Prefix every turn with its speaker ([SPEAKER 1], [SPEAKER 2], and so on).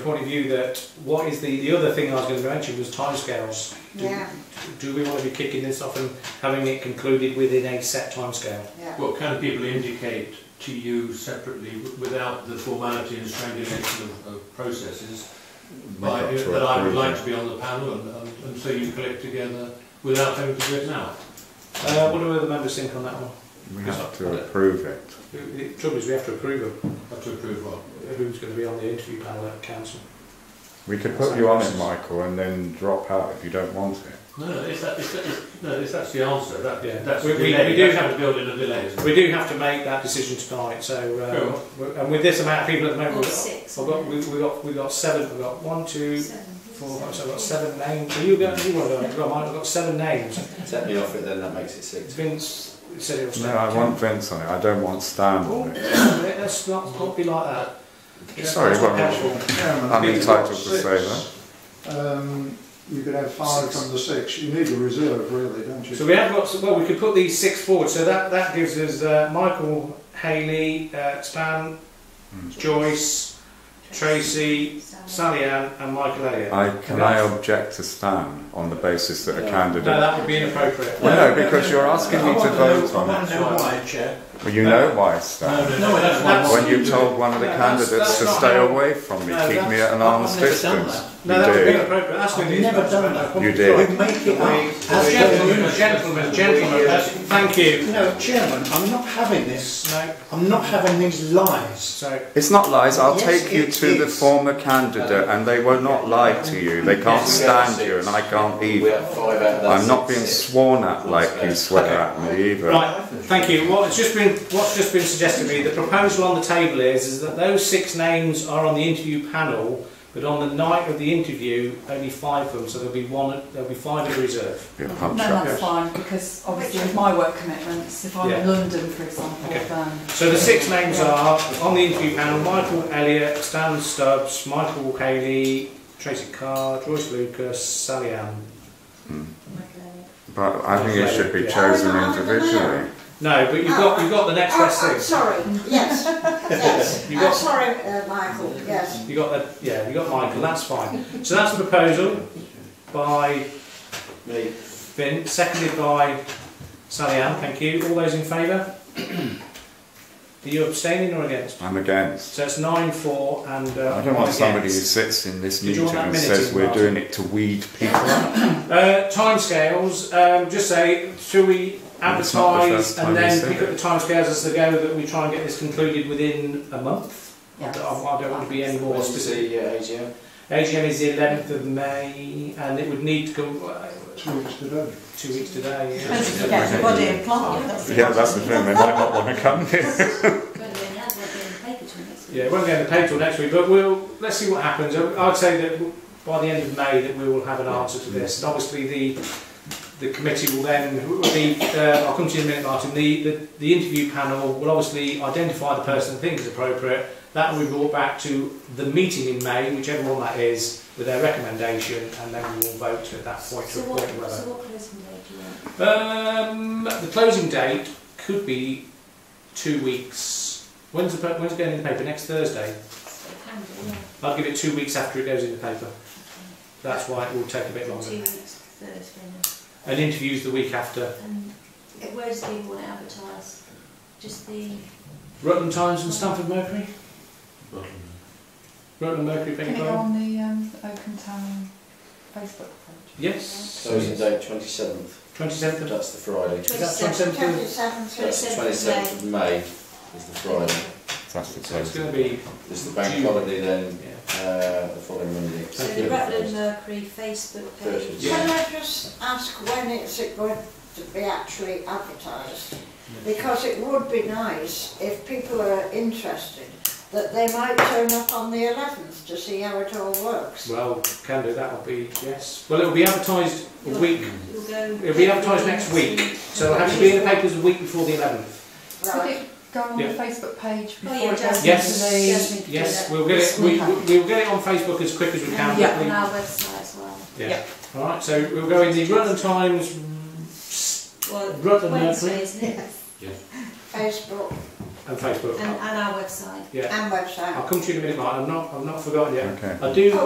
[SPEAKER 1] point of view that what is the, the other thing I was going to mention was timescales. Do,
[SPEAKER 2] Yeah,
[SPEAKER 1] do we want to be kicking this off and having it concluded within a set timescale?
[SPEAKER 2] yeah.
[SPEAKER 3] What can people indicate to you separately w- without the formality and strangulation of, of processes? By,
[SPEAKER 4] Make up to
[SPEAKER 3] that I would
[SPEAKER 4] approve
[SPEAKER 3] like
[SPEAKER 4] it.
[SPEAKER 3] to be on the panel and, and, and so you collect together without having to do it now.
[SPEAKER 1] Uh, what do other members think on that one?
[SPEAKER 4] We have to approve it.
[SPEAKER 1] The- The trouble is we have to approve of
[SPEAKER 3] Have to approve what?
[SPEAKER 1] who's going to be on the interview panel at council.
[SPEAKER 4] We could put you on it, Michael, and then drop out if you don't want it.
[SPEAKER 3] No, no, it's that, it's that, no, it's that's the answer. That,
[SPEAKER 1] Yeah.
[SPEAKER 3] That's
[SPEAKER 1] We-
[SPEAKER 3] the
[SPEAKER 1] we-
[SPEAKER 3] delay.
[SPEAKER 1] we do
[SPEAKER 3] That's
[SPEAKER 1] have-
[SPEAKER 3] how to build in a delay. isn't it?
[SPEAKER 1] We do have to make that decision tonight. So, uh,
[SPEAKER 3] Cool.
[SPEAKER 1] we're- and with this amount of people at the moment,
[SPEAKER 2] Or
[SPEAKER 1] we've got,
[SPEAKER 2] six.
[SPEAKER 1] we've got, we've got, we've got seven. We've got one, two,
[SPEAKER 2] Seven.
[SPEAKER 1] four, five, so I've got seven names. Are you going? You want to go? I've got mine. I've got seven names.
[SPEAKER 5] Set me off it, then that makes it six.
[SPEAKER 1] Vince said it was.
[SPEAKER 4] No, I want Vince on it. I don't want Stan
[SPEAKER 1] Oh,
[SPEAKER 4] on it.
[SPEAKER 1] let's not, not be like that.
[SPEAKER 4] Sorry,
[SPEAKER 1] That's not
[SPEAKER 4] well,
[SPEAKER 1] helpful.
[SPEAKER 6] Chairman,
[SPEAKER 4] I'm
[SPEAKER 6] if you've
[SPEAKER 4] entitled
[SPEAKER 6] got
[SPEAKER 4] to say
[SPEAKER 6] six, Um, you could have five
[SPEAKER 1] Six.
[SPEAKER 6] from the six. You need a reserve, really, don't you?
[SPEAKER 1] So we have got, some- well, we could put these six forward, so that, that gives us uh, Michael, Haley, uh, Span,
[SPEAKER 4] Hmm.
[SPEAKER 1] Joyce, Tracy, Sally Ann and Michael Elliott.
[SPEAKER 4] I, can I object to Stan on the basis that a candidate?
[SPEAKER 1] No, that would be inappropriate.
[SPEAKER 4] Well, no, because you're asking me to vote on it.
[SPEAKER 3] know
[SPEAKER 5] why, Chair.
[SPEAKER 4] Well, you know why,
[SPEAKER 3] No,
[SPEAKER 4] Stan.
[SPEAKER 3] no, no, that's why I
[SPEAKER 1] that's-
[SPEAKER 3] want
[SPEAKER 4] When you
[SPEAKER 3] to do
[SPEAKER 4] told one of the
[SPEAKER 1] No, that's-
[SPEAKER 4] candidates to
[SPEAKER 1] that's not
[SPEAKER 4] stay
[SPEAKER 1] how-
[SPEAKER 4] away from me,
[SPEAKER 1] No,
[SPEAKER 4] keep me
[SPEAKER 1] that's-
[SPEAKER 4] at an
[SPEAKER 5] I've
[SPEAKER 4] arm's
[SPEAKER 5] never done
[SPEAKER 4] distance.
[SPEAKER 1] No,
[SPEAKER 4] You
[SPEAKER 1] that would be
[SPEAKER 4] did.
[SPEAKER 1] inappropriate. That's what it is.
[SPEAKER 5] Never done that.
[SPEAKER 4] You did.
[SPEAKER 5] We make it up.
[SPEAKER 1] That's
[SPEAKER 5] As
[SPEAKER 1] gentlemen,
[SPEAKER 5] gentlemen,
[SPEAKER 1] gentlemen, gentlemen. that's- Thank you.
[SPEAKER 5] You know, Chairman, I'm not having this.
[SPEAKER 1] No,
[SPEAKER 5] I'm not having these lies.
[SPEAKER 1] so,
[SPEAKER 4] It's not lies. I'll
[SPEAKER 5] Yes,
[SPEAKER 4] take you
[SPEAKER 5] it
[SPEAKER 4] to the
[SPEAKER 5] is.
[SPEAKER 4] former candidate, and they will not lie to you. They can't
[SPEAKER 7] Yes, we have
[SPEAKER 4] stand you,
[SPEAKER 7] six.
[SPEAKER 4] and I can't
[SPEAKER 7] We
[SPEAKER 4] either.
[SPEAKER 7] have five out of that
[SPEAKER 4] I'm not being
[SPEAKER 7] six.
[SPEAKER 4] sworn at like you swear at me either.
[SPEAKER 1] right, thank you. What's just been, what's just been suggested to me, the proposal on the table is, is that those six names are on the interview panel, but on the night of the interview, only five of them, so there'll be one, there'll be five in reserve.
[SPEAKER 4] You're a
[SPEAKER 8] No,
[SPEAKER 4] punch up.
[SPEAKER 8] that's fine, because obviously with my work commitments, if I'm in
[SPEAKER 1] Yeah.
[SPEAKER 8] London, for example,
[SPEAKER 1] Okay.
[SPEAKER 8] then...
[SPEAKER 1] So the six names are on the interview panel: Michael Elliott, Stan Stubbs, Michael Haley, Tracy Carr, Joyce Lucas, Sally Ann.
[SPEAKER 4] But I think it should be chosen individually.
[SPEAKER 1] No, but you've got you've got the next
[SPEAKER 2] Oh,
[SPEAKER 1] best
[SPEAKER 2] I'm
[SPEAKER 1] six.
[SPEAKER 2] sorry, yes, yes.
[SPEAKER 1] You got-
[SPEAKER 2] I'm sorry, uh, Michael, yes.
[SPEAKER 1] You got the yeah, you got Michael. That's fine. So that's the proposal by
[SPEAKER 5] Me.
[SPEAKER 1] Vin, seconded by Sally Ann. Thank you. All those in favour? Are you abstaining or against?
[SPEAKER 4] I'm against.
[SPEAKER 1] So it's nine four and. Uh,
[SPEAKER 4] I don't
[SPEAKER 1] one
[SPEAKER 4] want somebody who
[SPEAKER 1] against.
[SPEAKER 4] sits in this
[SPEAKER 1] Did you
[SPEAKER 4] meeting
[SPEAKER 1] want that
[SPEAKER 4] and
[SPEAKER 1] minute
[SPEAKER 4] says
[SPEAKER 1] in,
[SPEAKER 4] we're
[SPEAKER 1] Martin?
[SPEAKER 4] doing it to weed people out.
[SPEAKER 1] Uh, timescales, um, just say, should we
[SPEAKER 4] Well, it's not the
[SPEAKER 1] advertise
[SPEAKER 4] first time
[SPEAKER 1] and
[SPEAKER 4] we
[SPEAKER 1] then
[SPEAKER 4] said
[SPEAKER 1] pick up the timescales as they go that we try and get this concluded within a month? I
[SPEAKER 8] Yes.
[SPEAKER 1] don't- I don't want to be any more
[SPEAKER 5] What's
[SPEAKER 1] specific.
[SPEAKER 5] the uh, AGM?
[SPEAKER 1] AGM is the 11th of May and it would need to come uh,
[SPEAKER 6] Two weeks today.
[SPEAKER 1] two weeks today.
[SPEAKER 8] Don't
[SPEAKER 1] yeah.
[SPEAKER 8] forget the body and plant, that's the
[SPEAKER 4] Yeah, that's the thing. They might not want to come here.
[SPEAKER 1] Yeah, it won't go in the paper till next week, but we'll, let's see what happens. I- I'd say that w- by the end of May that we will have an answer to this. And obviously the, the committee will then, the, uh, I'll come to you in a minute Martin, the, the, the interview panel will obviously identify the person they think is appropriate. That will be brought back to the meeting in May, whichever one that is, with their recommendation and then we will vote at that point to appoint whether.
[SPEAKER 2] what closing date do you want?
[SPEAKER 1] Um, the closing date could be two weeks. When's the, pa- when's it going in the paper? Next Thursday? I'll give it two weeks after it goes in the paper. That's why it will take a bit longer. And interviews the week after.
[SPEAKER 2] Where's the, want to advertise? Just the.
[SPEAKER 1] Rutland Times and Stamford Mercury? Rutland Mercury, beg
[SPEAKER 8] Can
[SPEAKER 1] your
[SPEAKER 8] it go
[SPEAKER 1] pardon?
[SPEAKER 8] on the um, Oakham Town Facebook page?
[SPEAKER 1] Yes.
[SPEAKER 5] Closing date 27th.
[SPEAKER 1] 27th of...
[SPEAKER 5] That's the Friday.
[SPEAKER 1] That's from 27th.
[SPEAKER 5] That's the 27th of May is the Friday.
[SPEAKER 4] That's the
[SPEAKER 1] So it's
[SPEAKER 4] closing.
[SPEAKER 1] going to be...
[SPEAKER 5] It's the bank
[SPEAKER 1] June.
[SPEAKER 5] holiday then,
[SPEAKER 1] Yeah.
[SPEAKER 5] uh, the following Monday.
[SPEAKER 2] So the Rutland Mercury Facebook page.
[SPEAKER 5] Yeah.
[SPEAKER 9] Can I just ask when is it going to be actually advertised? Because it would be nice if people are interested that they might turn up on the 11th to see how it all works.
[SPEAKER 1] Well, can do, that'll be... Yes. Well, it'll be advertised a week.
[SPEAKER 2] You'll go.
[SPEAKER 1] It'll be advertised next week. So it'll have to be in the papers a week before the 11th.
[SPEAKER 8] Could
[SPEAKER 9] Right.
[SPEAKER 8] it go on the
[SPEAKER 1] Yeah.
[SPEAKER 8] Facebook page
[SPEAKER 2] Oh,
[SPEAKER 8] before it
[SPEAKER 2] yeah,
[SPEAKER 8] goes
[SPEAKER 2] Jasmine.
[SPEAKER 1] Yes.
[SPEAKER 8] into
[SPEAKER 2] Jasmine.
[SPEAKER 1] Yes, we'll get it, we, we- we'll get it on Facebook as quick as we can.
[SPEAKER 2] And
[SPEAKER 8] Yeah.
[SPEAKER 2] on our website as well.
[SPEAKER 1] Yeah. All right, so we'll go in the Rutland Times
[SPEAKER 2] Well,
[SPEAKER 1] Rutland
[SPEAKER 2] Wednesday,
[SPEAKER 1] Mercury.
[SPEAKER 2] isn't it?
[SPEAKER 9] Facebook
[SPEAKER 1] and Facebook.
[SPEAKER 2] and, and our website.
[SPEAKER 1] Yeah,
[SPEAKER 9] and website.
[SPEAKER 1] I'll come to you in a minute, Martin. I've not, I've not forgotten yet.
[SPEAKER 4] Okay.
[SPEAKER 1] I do